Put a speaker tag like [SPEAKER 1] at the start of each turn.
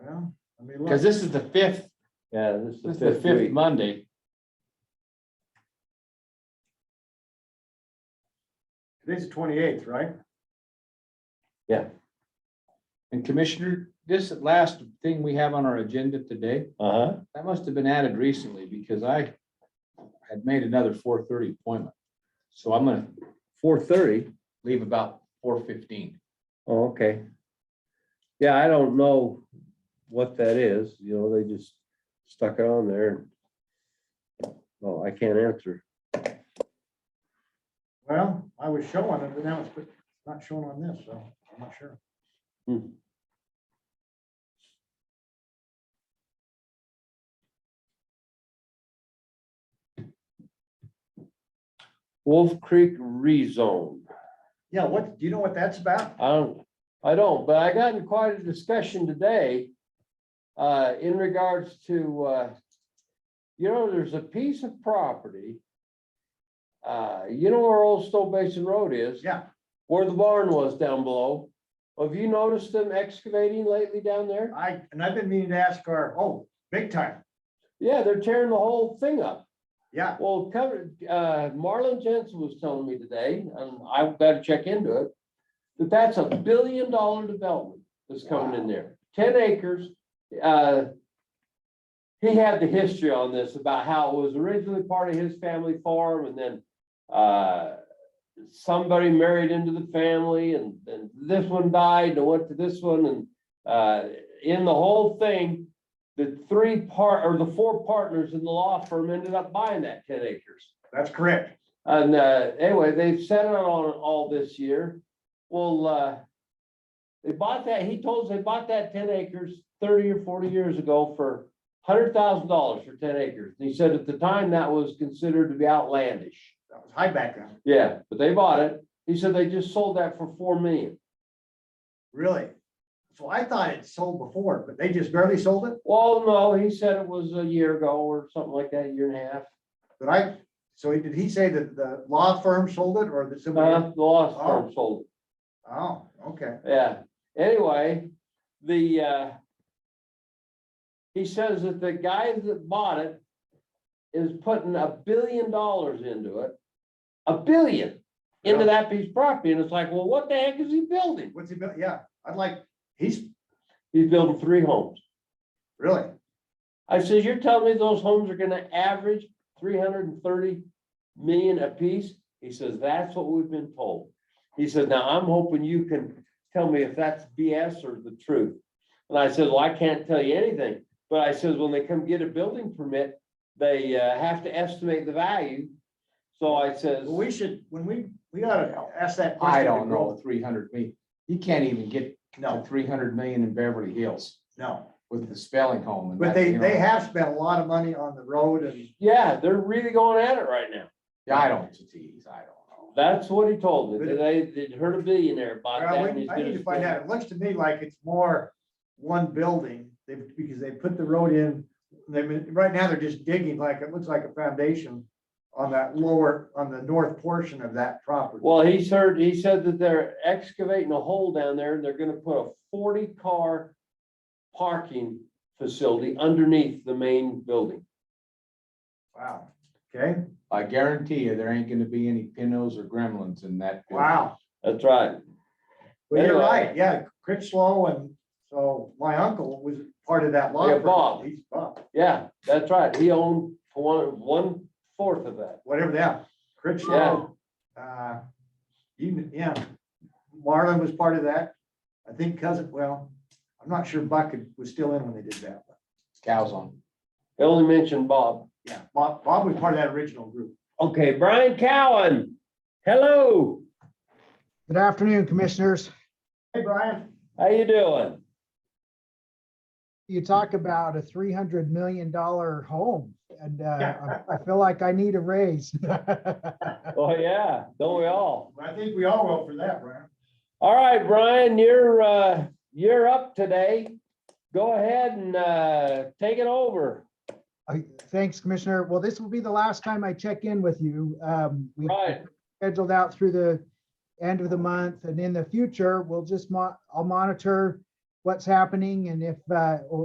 [SPEAKER 1] Cause this is the fifth,
[SPEAKER 2] Yeah, this is
[SPEAKER 1] this is the fifth Monday.
[SPEAKER 3] Today's the twenty-eighth, right?
[SPEAKER 1] And Commissioner, this last thing we have on our agenda today,
[SPEAKER 2] Uh huh.
[SPEAKER 1] that must have been added recently because I had made another four thirty appointment. So I'm gonna
[SPEAKER 2] Four thirty.
[SPEAKER 1] leave about four fifteen.
[SPEAKER 2] Oh, okay. Yeah, I don't know what that is, you know, they just stuck it on there. Well, I can't answer.
[SPEAKER 3] Well, I was showing it, but now it's not shown on this, so I'm not sure.
[SPEAKER 2] Wolf Creek rezone.
[SPEAKER 3] Yeah, what, do you know what that's about?
[SPEAKER 2] I don't, I don't, but I got in quite a discussion today. Uh, in regards to, uh. You know, there's a piece of property. Uh, you know where Old Stowe Basin Road is?
[SPEAKER 3] Yeah,
[SPEAKER 2] Where the barn was down below. Have you noticed them excavating lately down there?
[SPEAKER 3] I, and I've been meaning to ask our, oh, big time,
[SPEAKER 2] Yeah, they're tearing the whole thing up.
[SPEAKER 3] yeah.
[SPEAKER 2] Well, covered, uh, Marlon Jensen was telling me today, and I gotta check into it, that that's a billion dollar development that's coming in there, ten acres, uh. He had the history on this about how it was originally part of his family farm and then, uh. Somebody married into the family and then this one died and went to this one and, uh, in the whole thing the three part, or the four partners in the law firm ended up buying that ten acres.
[SPEAKER 3] That's correct.
[SPEAKER 2] And, uh, anyway, they've set it on all this year. Well, uh, they bought that, he told us they bought that ten acres thirty or forty years ago for hundred thousand dollars for ten acres. And he said at the time that was considered to be outlandish.
[SPEAKER 3] That was high back then,
[SPEAKER 2] Yeah, but they bought it. He said they just sold that for four million.
[SPEAKER 3] really. So I thought it sold before, but they just barely sold it,
[SPEAKER 2] Well, no, he said it was a year ago or something like that, a year and a half.
[SPEAKER 3] but I, so did he say that the law firm sold it or that somebody?
[SPEAKER 1] Uh-huh.
[SPEAKER 2] Uh, the law firm sold it.
[SPEAKER 3] Oh, okay.
[SPEAKER 2] Yeah, anyway, the, uh. He says that the guy that bought it is putting a billion dollars into it. A billion into
[SPEAKER 3] Yeah.
[SPEAKER 2] that piece of property, and it's like, well, what the heck is he building?
[SPEAKER 3] What's he, built? yeah, I'd like, he's,
[SPEAKER 2] He's building three homes.
[SPEAKER 3] really,
[SPEAKER 2] I says, you're telling me those homes are gonna average three hundred and thirty million apiece? He says, that's what we've been told. He said, now I'm hoping you can tell me if that's BS or the truth. And I said, well, I can't tell you anything, but I says, when they come get a building permit, they uh, have to estimate the value. So I says,
[SPEAKER 3] well, we should, when we, we gotta ask that question.
[SPEAKER 1] I
[SPEAKER 3] to
[SPEAKER 1] don't know,
[SPEAKER 3] Grove.
[SPEAKER 1] three hundred me, you can't even get to
[SPEAKER 3] No,
[SPEAKER 1] three hundred million in Beverly Hills
[SPEAKER 3] no.
[SPEAKER 1] with the spelling home. and
[SPEAKER 3] But
[SPEAKER 1] that,
[SPEAKER 3] they,
[SPEAKER 1] you know.
[SPEAKER 3] they have spent a lot of money on the road and
[SPEAKER 2] yeah, they're really going at it right now.
[SPEAKER 1] Yeah, I don't, geez, I don't know.
[SPEAKER 2] That's what he told me. that They, they heard a billionaire bought that.
[SPEAKER 3] Well,
[SPEAKER 2] and
[SPEAKER 3] we-
[SPEAKER 2] he's
[SPEAKER 3] I need
[SPEAKER 2] gonna
[SPEAKER 3] to find
[SPEAKER 2] spend-
[SPEAKER 3] out. It looks to me like it's more one building, they, because they put the road in. They, right now, they're just digging like, it looks like a foundation on that lower, on the north portion of that property.
[SPEAKER 2] Well, he's heard, he said that they're excavating a hole down there and they're gonna put a forty car parking facility underneath the main building.
[SPEAKER 3] Wow, okay,
[SPEAKER 1] I guarantee you, there ain't gonna be any pinos or gremlins in that. building.
[SPEAKER 3] wow.
[SPEAKER 2] That's right.
[SPEAKER 3] Well, you're
[SPEAKER 2] Anyway.
[SPEAKER 3] right, yeah, Critchlow and so my uncle was part of that law.
[SPEAKER 2] Yeah,
[SPEAKER 3] firm.
[SPEAKER 2] Bob.
[SPEAKER 3] He's Bob,
[SPEAKER 2] Yeah, that's right. He owned one, one fourth of that.
[SPEAKER 3] whatever that, Critchlow. Uh, you, yeah, Marlon was part of that. I think cousin, well, I'm not sure Buck was still in when they did that.
[SPEAKER 1] Cows on.
[SPEAKER 2] They only mentioned Bob.
[SPEAKER 3] Yeah, Bob, Bob was part of that original group.
[SPEAKER 2] Okay, Brian Cowan. Hello,
[SPEAKER 4] Good afternoon, Commissioners.
[SPEAKER 3] Hey, Brian.
[SPEAKER 2] how you doing?
[SPEAKER 4] You talk about a three hundred million dollar home and
[SPEAKER 3] Yeah.
[SPEAKER 4] uh, I I feel like I need a raise. Uh,
[SPEAKER 2] Oh, yeah, don't we all?
[SPEAKER 3] I think we all will for that, Brian.
[SPEAKER 2] All right, Brian, you're, uh, you're up today. Go ahead and, uh, take it over.
[SPEAKER 4] I- Thanks, Commissioner. Well, this will be the last time I check in with you. Um, we
[SPEAKER 2] Right.
[SPEAKER 4] scheduled out through the end of the month and in the future, we'll just mo- I'll monitor what's happening and if uh,